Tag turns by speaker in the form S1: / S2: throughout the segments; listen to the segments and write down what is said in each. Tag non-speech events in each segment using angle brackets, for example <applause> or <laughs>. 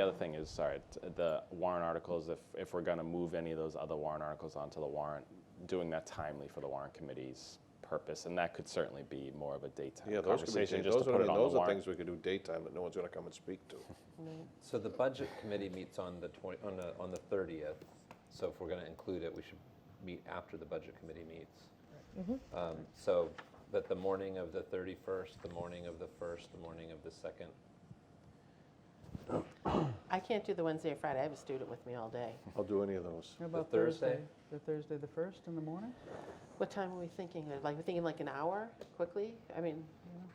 S1: The other thing is, sorry, t- the warrant articles, if, if we're gonna move any of those other warrant articles onto the warrant, doing that timely for the warrant committee's purpose, and that could certainly be more of a daytime
S2: Yeah, those could be,
S1: conversation,
S2: changed.
S1: just to
S2: those
S1: put
S2: are,
S1: it on
S2: those
S1: the
S2: are
S1: warrant.
S2: things we could do daytime that no one's gonna come and speak to.
S3: So the budget committee meets on the twenty, on the, on the thirtieth, so if we're gonna include it, we should meet after the budget committee meets.
S4: Mm-hmm.
S3: Um, so, that the morning of the thirty-first, the morning of the first, the morning of the second,
S5: I can't do the Wednesday or Friday. I have a student with me all day.
S2: I'll do any of those.
S4: How about
S3: Thursday?
S4: Thursday? The Thursday, the first in the morning?
S5: What time are we thinking? of? Like, we're thinking like an hour quickly? I mean,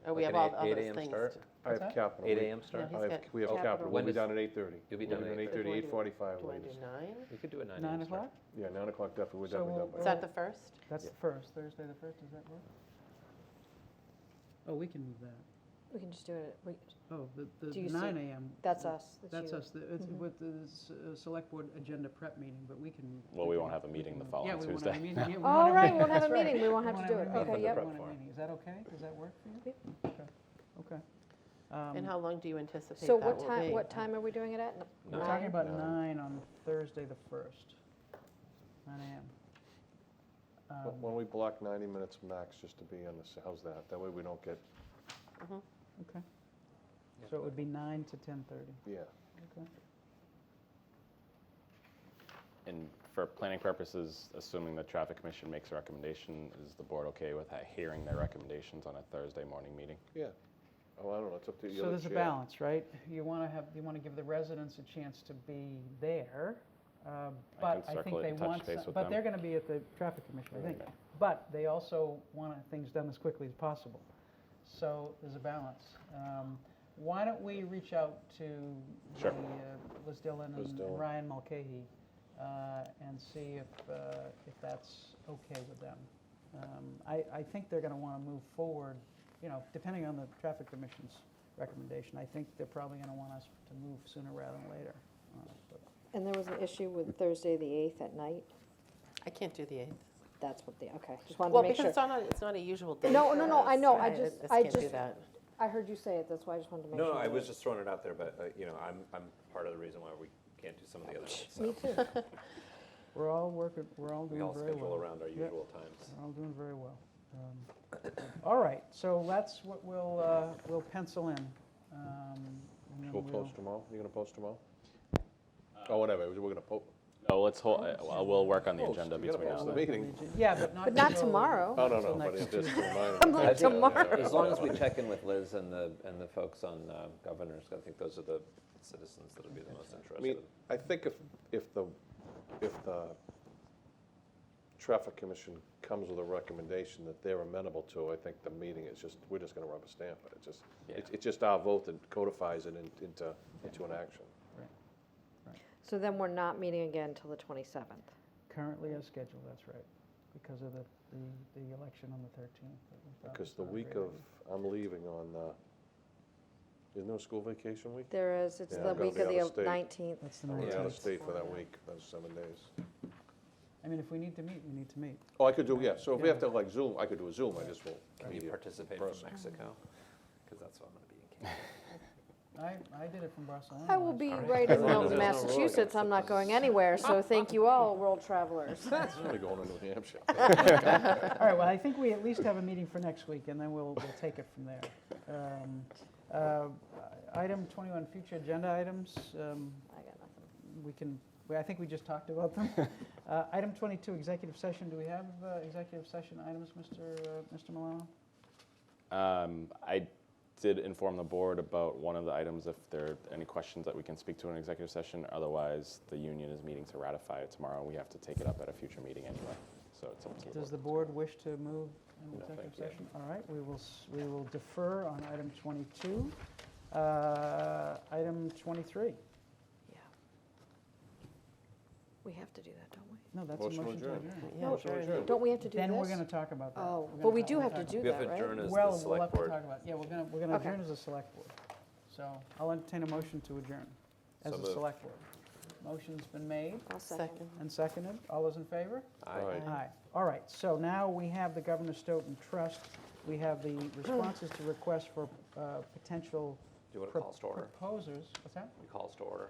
S5: or we
S3: Like
S5: have
S3: an eight-
S5: all the
S3: 8
S5: other
S3: a.m.
S5: things.
S3: start?
S5: to-
S2: I have capital.
S3: eight
S2: We-
S3: AM start?
S5: Yeah,
S2: I have,
S5: he's got
S2: we have
S4: Capital.
S2: capital, we'll
S3: When
S2: be
S3: does-
S2: down at eight-thirty.
S3: You'll be
S2: We'll
S3: done at
S2: Eight
S5: Do
S2: thirty,
S5: I
S2: eight
S5: do-
S2: forty-five
S5: Do I do
S2: latest.
S5: nine?
S3: We could do a nine
S4: Nine
S3: AM start.
S4: o'clock?
S2: Yeah, nine o'clock definitely, we're
S4: So
S2: definitely done
S4: we'll-
S2: by.
S5: Is that the first?
S4: That's the first, Thursday, the first, does that work? Oh, we can move that.
S6: We can just do it, at- we,
S4: Oh, the,
S6: Do
S4: the
S6: you
S4: nine
S6: see-
S4: AM.
S6: that's us,
S4: That's
S6: that's you. Mm-hmm.
S4: us, the- it's with the s- uh, select board agenda prep meeting, but we can.
S1: Well, we
S4: can-
S1: won't have a meeting the
S4: can-
S1: following
S4: Yeah, we won't
S1: Tuesday.
S4: have a meeting.
S6: <laughs>
S4: yeah, we won't
S6: All
S4: have a
S6: right,
S4: meeting. <laughs>
S6: we won't have a
S4: That's right.
S6: meeting, we won't have
S4: Won't
S6: to do it,
S4: meeting.
S6: okay, yep.
S3: prep
S4: Won't have a
S3: for.
S4: meeting. Is that okay? Does that work for you?
S6: Yep.
S4: Okay, okay. Um,
S5: And how long do you anticipate
S6: So
S5: that
S6: what
S5: will
S6: time,
S5: be?
S6: what time are we doing it at?
S4: We're talking about nine on Thursday, the first, nine AM.
S2: Why
S4: Um,
S2: don't we block ninety minutes max just to be on this, how's that? That way we don't get,
S5: Mm-hmm.
S4: Okay. So it would be nine to ten-thirty.
S2: yeah.
S1: And for planning purposes, assuming the traffic commission makes a recommendation, is the board okay with ha- hearing their recommendations on a Thursday morning meeting?
S2: Yeah. Oh, I don't know, it's up to you.
S4: So there's a balance, right? You want to have, you want to give the residents a chance to be there, uh,
S1: I can
S4: but I
S1: circle
S4: think
S1: it
S4: they
S1: and touch
S4: want,
S1: base
S4: some-
S1: with
S4: but
S1: them.
S4: they're going to be at the traffic commission, I think.
S1: Okay.
S4: But they also want things done as quickly as possible. So there's a balance. Um, Why don't we reach out to the,
S1: Sure.
S4: uh, Liz Dillon
S2: Liz
S4: and
S2: Dillon.
S4: and Ryan Mulcahy uh, and see if, uh, if that's okay with them. Um, I, I think they're going to want to move forward, you know, depending on the traffic commission's recommendation. I think they're probably going to want us to move sooner rather than later. on it, but-
S6: And there was an issue with Thursday, the eighth at night,
S5: I can't do the 8th.
S6: that's what the, okay, just wanted
S5: Well,
S6: to make
S5: because
S6: sure.
S5: it's not, a- it's not a usual day.
S6: No,
S5: for
S6: no, no, I
S5: us.
S6: know, I just- I
S5: can't do
S6: just-
S5: that.
S6: I heard you say it, that's why I just wanted to make
S3: No,
S6: sure.
S3: no, I
S6: that-
S3: was just throwing it out there, but, uh, you know, I'm, I'm part of the reason why we can't do some of the other ones,
S6: Me
S3: so.
S6: too.
S4: We're all working, we're all
S3: We
S4: doing
S3: all
S4: very
S3: schedule
S4: well.
S3: around our
S4: Yep.
S3: usual times.
S4: We're all doing very well. Um, All right, so that's what we'll, uh, we'll pencil in. um, and then
S2: We'll post tomorrow, you gonna post tomorrow? Oh, whatever, we're gonna post.
S1: No, let's hold, uh, well, we'll work on the
S2: Post,
S1: agenda
S2: Oh, you gotta
S1: between now
S2: post
S1: and
S2: the
S1: then.
S2: meeting.
S4: Yeah, but not. <laughs>
S6: But not
S4: until-
S6: tomorrow.
S2: Oh, no,
S4: Until
S2: no, but
S4: next
S2: it's just a
S4: Tuesday. <laughs>
S2: reminder.
S6: I'm like,
S2: That's it.
S6: tomorrow.
S3: As long as we check in with Liz and the, and the folks on uh, governors, I think those are the citizens that'll be the most
S2: I mean,
S3: interested.
S2: I think if, if the, if the traffic commission comes with a recommendation that they're amenable to, I think the meeting is just, we're just gonna rubber stamp it, it's just, it's, it's just our vote that codifies it in- into, into an action.
S6: So then we're not meeting again until the twenty-seventh.
S4: Currently as scheduled, that's right, because of the, the, the election on the 13th. that we thought
S2: Because
S4: was
S2: the
S4: not a
S2: week
S4: great
S2: of,
S4: idea.
S2: I'm leaving on, uh, isn't there a school vacation week?
S6: There is, it's
S2: Yeah,
S6: the
S2: I'm gonna
S6: week
S2: be
S6: of
S2: out of
S6: the
S2: state.
S6: nineteenth.
S4: That's the
S2: I'm gonna be out of
S4: 19th.
S2: state for that week, those seven days.
S4: I mean, if we need to meet, we need to meet.
S2: Oh, I could do, yeah, so if we have to like Zoom, I could do a Zoom, I just will.
S3: Can you
S2: <laughs>
S3: participate from
S2: person.
S3: Mexico? Because that's what I'm going to be in Canada.
S4: I, I did it from Barcelona.
S6: I will
S4: last
S6: be
S4: year. <laughs>
S6: right
S2: As <laughs>
S6: in
S2: long as there's
S6: Milton,
S2: no road,
S6: Massachusetts, I'm not going anywhere, so thank you all, world travelers.
S2: That's really going to New Hampshire.
S4: All right, well, I think we at least have a meeting for next week, and then we'll, we'll take it from there. Um, uh, Item 21, future agenda items, um,
S6: I got nothing.
S4: we can, we- I think we just talked about them. Uh, Item 22, executive session, do we have uh, executive session items, Mr. uh, Mr. Milano?
S1: Um, I did inform the board about one of the items, if there are any questions that we can speak to in executive session. Otherwise, the union is meeting to ratify it tomorrow. We have to take it up at a future meeting anyway, so it's up to the board.
S4: Does the board wish to move an
S1: No,
S4: executive
S1: thank you.
S4: session? All right, we will, s- we will defer on item 22. Uh, Item 23,
S6: Yeah. We have to do that, don't we?
S4: no, that's a
S2: Motion to
S4: motion to
S2: adjourn.
S4: adjourn.
S5: Yeah,
S2: Motion to
S5: sure.
S2: adjourn.
S6: Don't we have to do this?
S4: Then we're going to talk about that.
S6: Oh,
S4: We're gonna
S6: but we
S4: talk-
S6: do
S4: we're
S6: have
S4: gonna talk
S6: to do
S3: We have
S6: that,
S3: to adjourn
S6: right?
S3: as the
S4: Well, we'll have
S3: select
S4: to talk
S3: board.
S4: about, yeah, we're gonna, we're gonna
S6: Okay.
S4: adjourn as a select board. So I'll entertain a motion to adjourn as
S3: So
S4: a
S3: moved.
S4: select board. Motion's been made
S6: I'll second.
S5: Second.
S4: and seconded. All those in favor?
S3: Aye.
S2: All right.
S4: Aye. All right, so now we have the Governor Stoughton Trust. We have the responses to requests for uh, potential do what it
S3: Pro-
S4: calls to order.
S3: Proposers, what's that?
S4: It calls to order.